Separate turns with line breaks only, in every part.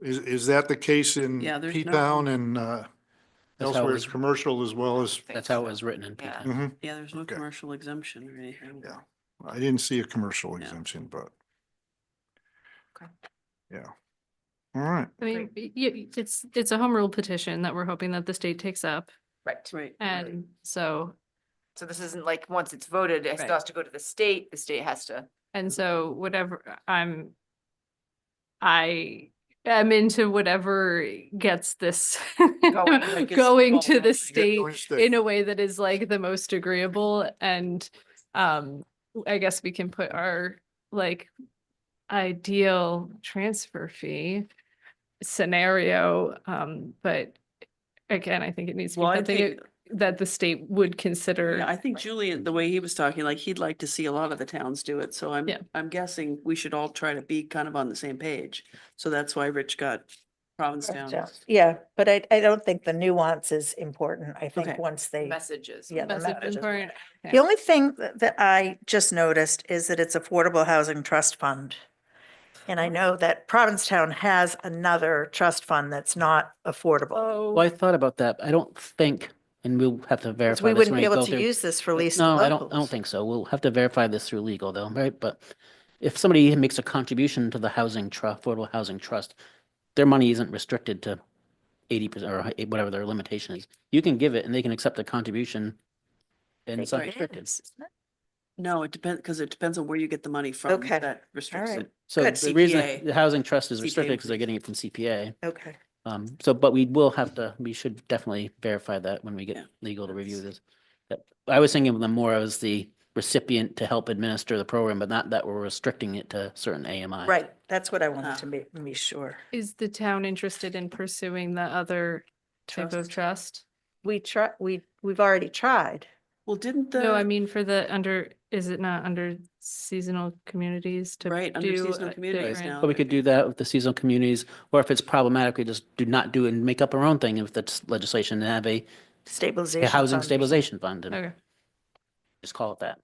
Is, is that the case in
Yeah, there's no-
P-Town and uh,
That's how it
elsewhere,
was-
it's commercial as well as,
That's how it was written in
Yeah.
P-TOWN.
Mhm.
Yeah, there's no
Okay.
commercial exemption or anything.
Yeah. I didn't see a commercial
Yeah.
exemption, but.
Okay.
Yeah. All right.
I mean, y- y- it's, it's a home rule petition that we're hoping that the state takes up.
Right.
Right.
And so,
So this isn't like, once it's voted, it
Right.
still has to go to the state, the state has to.
and so whatever I'm, I am into whatever gets this
like it's going.
going to the
You get
state
to instead.
in a way that is like the most agreeable and um I guess we can put our like ideal transfer fee scenario um but again I think it needs to be
Well, I
something
think,
that the state would
yeah, I
consider
think Julian, the way he was talking, like he'd like to see a lot of the towns do it. So I'm,
Yeah.
I'm guessing we should all try to be kind of on the same page. So that's why Rich got Provincetown.
Provincetown. Yeah, but I, I don't think the nuance is important. I think
Okay.
once they,
Messages.
yeah. the
Message
message is
important.
important.
Okay.
The only thing that that I just noticed is that it's Affordable Housing Trust Fund. And I know that Provincetown has another trust fund that's not affordable.
oh
Well, I thought about that. I don't think, and we'll have to
'Cause
verify.
We
this
wouldn't
when
be
go
able to
through-
use this for lease to
No, I don't, I don't
locals.
think so. We'll have to verify this through legal though, right? But if somebody makes a contribution to the housing trust, affordable housing trust, their money isn't restricted to eighty percent or hi- whatever their limitation is. You can give it and they can accept a contribution and it's
They
not
can.
restricted.
No, it depends, because it depends on where you get the money from.
Okay.
That restricts
right.
it.
So
Good.
the reason
CPA.
the housing trust is
CPA
restricted because they're
increase.
getting it from CPA.
Okay.
Um, so, but we will have to, we should definitely verify that when we
Yeah,
get legal to review
that's-
this. That- I was thinking of them more as the recipient to help administer the program, but not that we're restricting it to certain AMI.
Right, that's what I wanted
Ah.
to be, be sure.
is the town interested in pursuing the other type of trust
We try, we, we've already tried.
Well, didn't the,
no I mean for the under is it not under seasonal communities to
right, under
do
seasonal
a
communities
different-
now.
But we could do that with the seasonal communities, or if it's problematic, we just do not do it and make up our own thing with the s- legislation and have a a
Stabilization.
housing
fund.
stabilization fund and
Okay.
just call it that.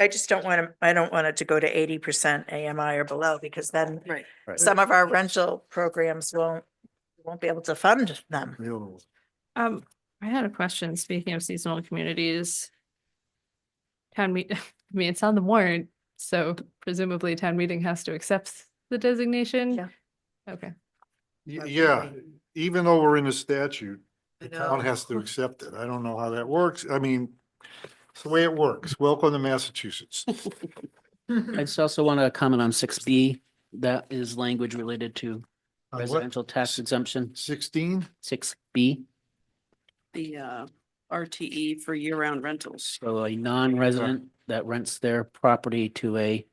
I just don't want to, I don't want it to go to eighty percent AMI or below because then
Right.
Right.
some of our rental programs won't, won't be able to fund them.
Real-
Um, I had a question, speaking of seasonal communities. Town meet, I mean, it's on the warrant, so presumably town meeting has to accept the designation?
Yeah.
Okay,
Y-
Or
Yeah,
building.
even though we're in a statute,
I
the town
know.
has to accept it. I don't know how that works. I mean, it's the way it works. Welcome to Massachusetts. Uh,
I just also want to comment on six B. That is language related to residential tax exemption,
Sixteen?
six B.
The uh, RTE for year-round rentals.
So a non-resident that rents their property to a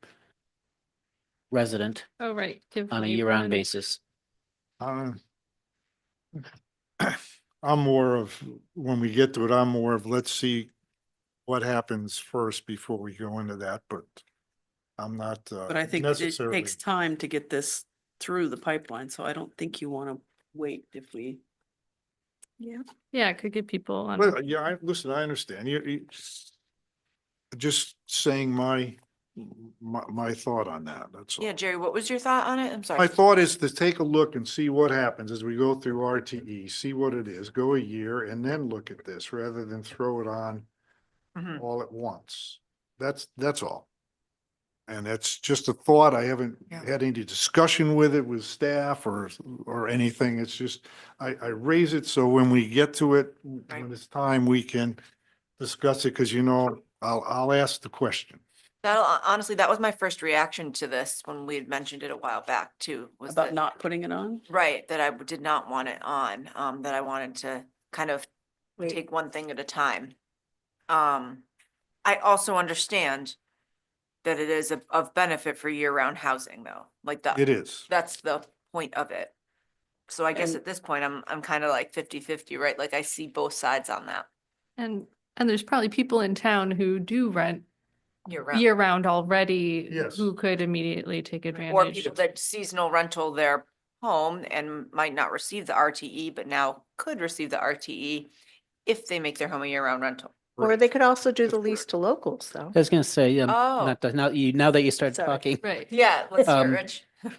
resident
oh, right. give
on a
me
year-round
one.
basis.
Uh, I'm more of, when we get to it, I'm more of, let's see what happens first before we go into that, but I'm not uh,
But I think it- it
necessarily.
takes time to get this through the pipeline, so I don't think you want to wait if we.
Yeah, it could get people on,
Well, yeah, I, listen, I understand. You, you- just saying my, my, my thought on that, that's all.
Yeah, Jerry, what was your thought on it? I'm sorry.
My thought is to take a look and see what happens as we go through RTE, see what it is, go a year and then look at this rather than throw it on
Mhm.
all at once. That's, that's all. And that's just a thought. I haven't
Yeah.
had any discussion with it with staff or, or anything. It's just, I, I raise it so when we get to it, when
Right.
it's time, we can discuss it, because you know, I'll, I'll ask the question.
That, honestly, that was my first reaction to this when we had mentioned it a while back too. was
About
that-
not putting it on?
Right, that I w- did not want it on, um, that I wanted to kind of
Wait.
take one thing at a time. Um, I also understand that it is of- of benefit for year-round housing though, like
It
Uh,
the,
is.
that's the point of it. So I guess
And-
at this point, I'm, I'm kind of like 50-50, right? Like I see both sides on that
and, and there's probably people in town who do rent
year-round.
year-round already.
Yes.
Who could immediately take
Or
advantage.
people that seasonal rental their home and might not receive the RTE, but now could receive the RTE if they make their home a year-round rental.
Or they could also do the
That's
lease to locals though.
I was gonna say, yeah,
Oh.
not, that- now, you, now that you start
Sorry.
talking,
Right,
Yeah, let's hear it,
Um,
Rich.